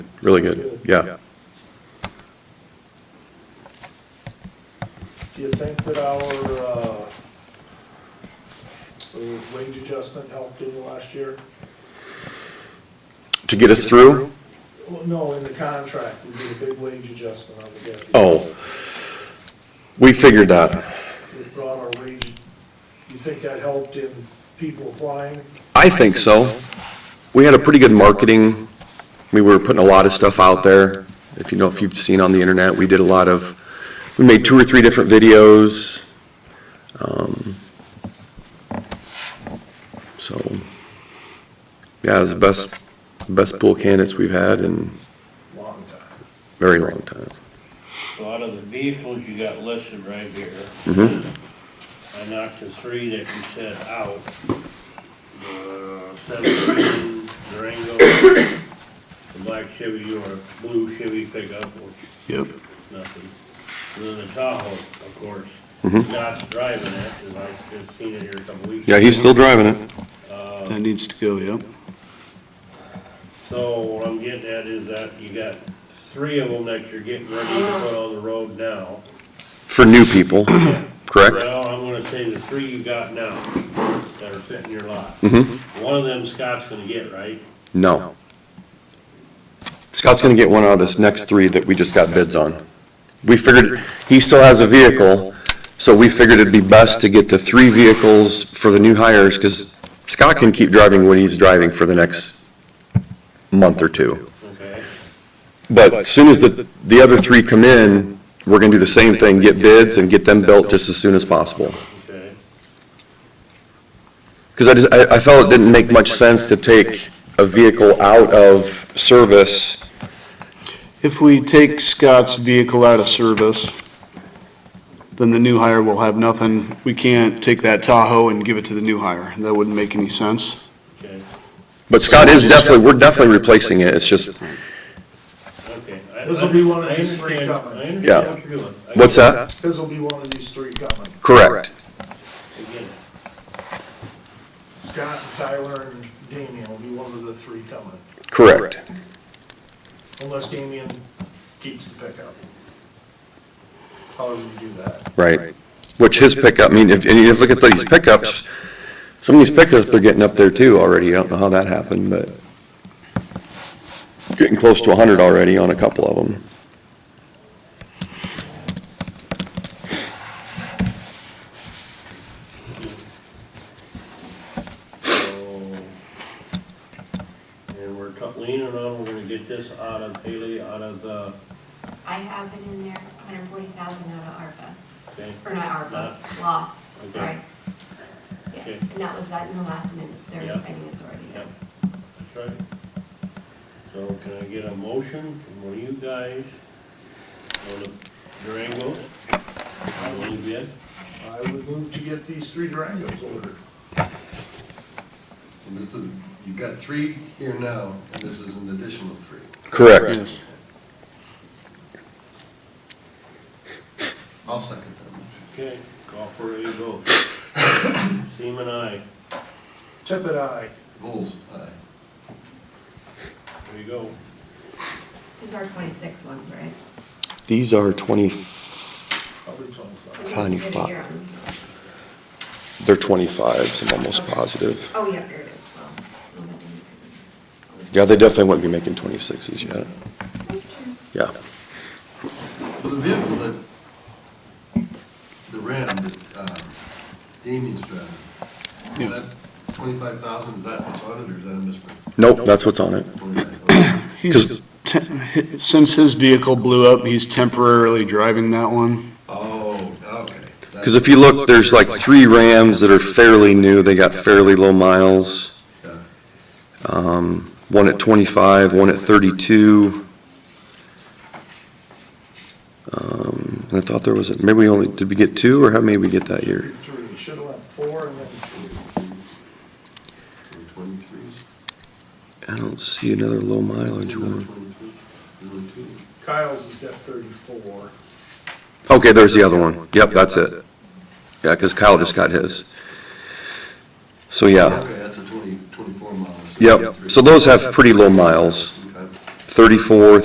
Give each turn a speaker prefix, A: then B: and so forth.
A: really good, yeah.
B: Do you think that our, uh, uh, wage adjustment helped in last year?
A: To get us through?
B: Well, no, in the contract, we did a big wage adjustment on the deputies.
A: Oh, we figured that.
B: It brought our wage, you think that helped in people applying?
A: I think so. We had a pretty good marketing, we were putting a lot of stuff out there. If you know, if you've seen on the internet, we did a lot of, we made two or three different videos. Um, So, yeah, it was the best, best pool candidates we've had in
B: Long time.
A: a very long time.
C: So out of the vehicles you got listed right here,
A: Mhm.
C: I knocked the three that you said out. The seventeen Durango, the black Chevy or blue Chevy pickup, which
A: Yep.
C: is nothing. And then the Tahoe, of course, not driving it, 'cause I just seen it here a couple weeks.
A: Mm-hmm. Yeah, he's still driving it.
D: That needs to go, yeah.
C: So what I'm getting at is that you got three of them that you're getting ready to put on the road now.
A: For new people, correct?
C: Well, I'm gonna say the three you got now that are sitting in your lot.
A: Mhm.
C: One of them Scott's gonna get, right?
A: No. Scott's gonna get one out of this next three that we just got bids on. We figured, he still has a vehicle, so we figured it'd be best to get the three vehicles for the new hires, cause Scott can keep driving what he's driving for the next month or two.
C: Okay,
A: But as soon as the, the other three come in, we're gonna do the same thing, get bids and get them built just as soon as possible.
C: okay.
A: Because I just, I, I felt it didn't make much sense to take a vehicle out of service.
D: If we take Scott's vehicle out of service, then the new hire will have nothing. We can't take that Tahoe and give it to the new hire. That wouldn't make any sense.
C: Okay,
A: But Scott is definitely, we're definitely replacing it, it's just,
C: okay. I-
B: This'll be one of
C: I
B: these three
C: understand-
B: coming.
C: I understand
A: Yeah.
C: what you're doing. I
A: what's
C: get it.
A: that?
B: Cause will be one of these three coming.
A: Correct.
C: I get it.
B: Scott, Tyler, and Damian will be one of the three coming,
A: Correct.
B: unless Damian keeps the pickup. However you do that.
A: Right. Which his pickup, I mean, if, and you look at these pickups, some of these pickups are getting up there too already, I don't know how that happened, but getting close to a hundred already on a couple of them.
C: So, And we're cut- leaning on, we're gonna get this out of Haley, out of, uh,
E: I have it in there, hundred forty thousand out of ARPA,
C: okay,
E: or not ARPA, lost,
C: Okay.
E: sorry.
C: Okay.
E: Yes, and that was that in the last amendment, their
C: Yeah.
E: spending authority.
C: yeah, that's right. So can I get a motion from one of you guys on the Durango? I believe it.
B: I would move to get these three Durangos ordered.
F: And this is, you've got three here now, and this is an additional three.
A: Correct.
D: Yes.
F: I'll second that motion.
C: Okay, call for a vote. Seaman, aye.
B: Tippit, aye.
F: Vols, aye.
C: There you go.
E: These are twenty-six ones, right?
A: These are twenty,
B: Probably twenty-five.
A: Tiny
E: It's
A: fuck.
E: here on-
A: they're twenty-fives, I'm almost positive.
E: Oh, yeah, here it is, well. no, that didn't say that.
A: Yeah, they definitely wouldn't be making twenty-sixes yet, yeah.
F: So the vehicle that, the Ram that um, Damien's driving,
D: Yeah.
F: is that twenty-five thousand, is that what's on it, or is that a misprint?
A: Nope, that's what's on it.
F: 25,000. Okay.
D: He's, te- since his vehicle blew up, he's temporarily driving that one.
F: Oh, okay.
A: Because if you look, there's like three Rams that are fairly new, they got fairly low miles.
F: Yeah.
A: Um, one at twenty-five, one at thirty-two. Um, and I thought there was, a maybe we only, did we get two, or how many we get that year?
B: Three, should've went four and then three.
F: Twenty-threes?
A: I don't see another low mileage one.
F: Twenty-two?
B: Kyle's has got thirty-four.
A: Okay, there's the other one. Yep, that's it. Yeah, because Kyle just got his. So, yeah,
F: Okay, that's a twenty, twenty-four model.
A: yep. So those have pretty low miles.
F: Okay.
A: thirty-four,